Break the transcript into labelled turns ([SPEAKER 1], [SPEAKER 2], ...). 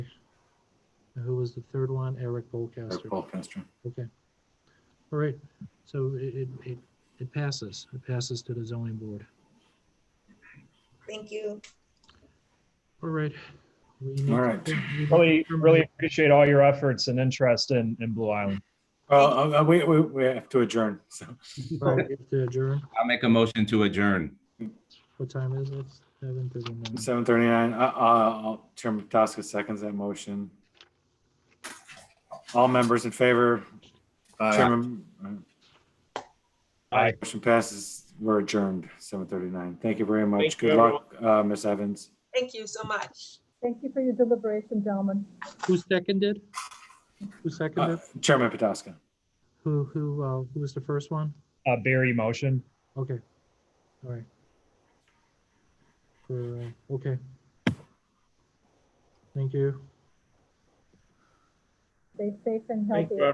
[SPEAKER 1] And who was the third one? Eric Bolcaster.
[SPEAKER 2] Paul Castro.
[SPEAKER 1] Okay. All right, so it, it, it it passes. It passes to the zoning board.
[SPEAKER 3] Thank you.
[SPEAKER 1] All right. We need-
[SPEAKER 2] All right.
[SPEAKER 1] we need to
[SPEAKER 4] Really,
[SPEAKER 1] determine-
[SPEAKER 4] really appreciate all your efforts and interest in, in Blue Island.
[SPEAKER 2] Well, uh, we, we, we have to adjourn, so.
[SPEAKER 1] All right, we have to adjourn.
[SPEAKER 5] I'll make a motion to adjourn.
[SPEAKER 1] What time is it? Seven thirty-nine.
[SPEAKER 2] Seven thirty-nine, uh, uh, Chairman Pataglia seconds that motion. All members in favor? Chairman. uh,
[SPEAKER 4] Aye.
[SPEAKER 2] Motion passes, we're adjourned, seven thirty-nine. Thank you very much.
[SPEAKER 6] Thank you,
[SPEAKER 2] Good luck, uh, Ms. Evans.
[SPEAKER 3] Thank you so much.
[SPEAKER 7] Thank you for your deliberation, gentlemen.
[SPEAKER 1] Who seconded? Who
[SPEAKER 2] Uh,
[SPEAKER 1] seconded?
[SPEAKER 2] Chairman Pataglia.
[SPEAKER 1] Who, who, uh, who was the first one?
[SPEAKER 4] Uh, Barry motion.
[SPEAKER 1] Okay, all right. For, uh, okay. Thank you.
[SPEAKER 7] Stay safe and
[SPEAKER 6] Thank
[SPEAKER 7] healthy.
[SPEAKER 6] you,